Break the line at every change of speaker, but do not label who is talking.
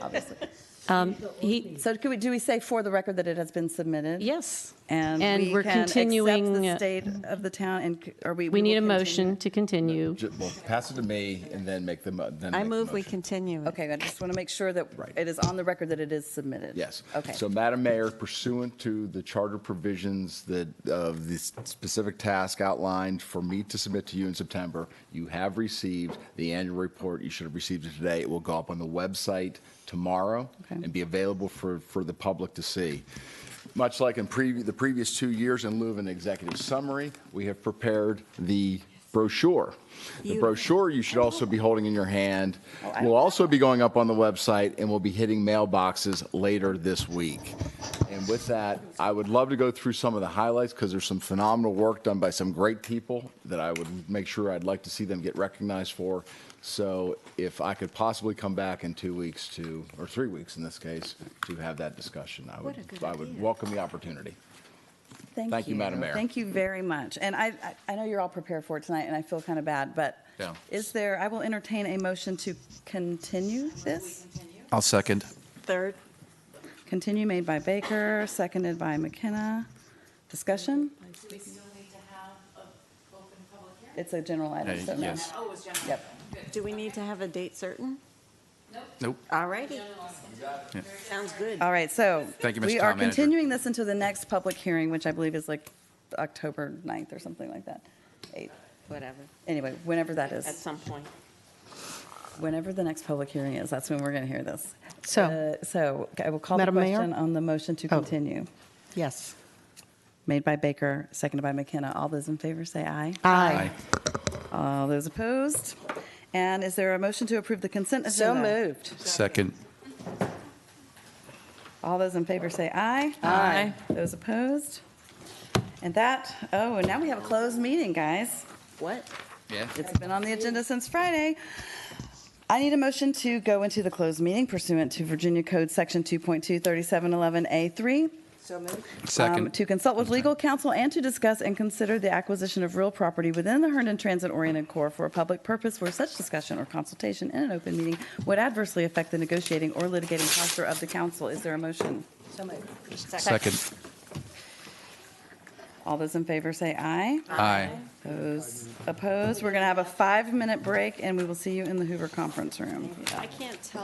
obviously. Um, He, so could we, do we say for the record that it has been submitted?
Yes.
And we
we're
can accept
continuing. uh,
the state of the town, and c- are we?
We need a
will continue?
motion to continue.
Ju- Well, pass it to me and then make the, mo- then
I
make the
move we
motion.
continue. it.
Okay, I just want to make sure that it is on the record that it is submitted.
Yes.
Okay.
So, Madam Mayor, pursuant to the charter provisions that, of the specific task outlined for me to submit to you in September, you have received the annual report. You should have received it today. It will go up on the website tomorrow
Okay.
and be available for, for the public to see. Much like in previ- the previous two years, in lieu of an executive summary, we have prepared the brochure. The brochure you should also be holding in your hand will also be going up on the website and will be hitting mailboxes later this week. And with that, I would love to go through some of the highlights because there's some phenomenal work done by some great people that I would make sure I'd like to see them get recognized for. So if I could possibly come back in two weeks to, or three weeks in this case, to have that discussion, I would, I would welcome the opportunity. Thank you, Madam Mayor.
Thank you very much. And I, I- I know you're all prepared for it tonight, and I feel kind of bad, but
Yeah.
is there, I will entertain a motion to continue this?
I'll second.
Third,
Continue made by Baker, seconded by McKenna. Discussion?
We still need to have an open public hearing?
It's a general item,
Hey,
so no.
yes.
Oh, it's general.
Yep.
do we need to have a date certain?
Nope.
All righty,
Yeah.
sounds good.
All right, so.
Thank you, Mr.
We are
Town Manager.
continuing this until the next public hearing, which I believe is like October 9th or something like that. Eighth.
Whatever,
Anyway, whenever that
at
is,
some point.
whenever the next public hearing is, that's when we're going to hear this.
So-
Uh, So I will call the
Madam Mayor?
question on the motion to
Oh.
continue.
Yes.
Made by Baker, seconded by McKenna. All those in favor say aye.
Aye.
All those opposed? And is there a motion to approve the consent
So
agenda?
moved.
Second.
All those in favor say aye. Aye. Those opposed? And that, oh, and now we have a closed meeting, guys.
What?
Yeah.
It's been on the agenda since Friday. I need a motion to go into the closed meeting pursuant to Virginia Code Section 2.23711A3
So moved.
um,
Second.
To consult with legal counsel and to discuss and consider the acquisition of real property within the Herndon Transit-oriented core for a public purpose where such discussion or consultation in an open meeting would adversely affect the negotiating or litigating posture of the council. Is there a motion?
Second.
All those in favor say aye.
Aye.
Those opposed? We're going to have a five-minute break, and we will see you in the Hoover Conference Room.
I can't tell.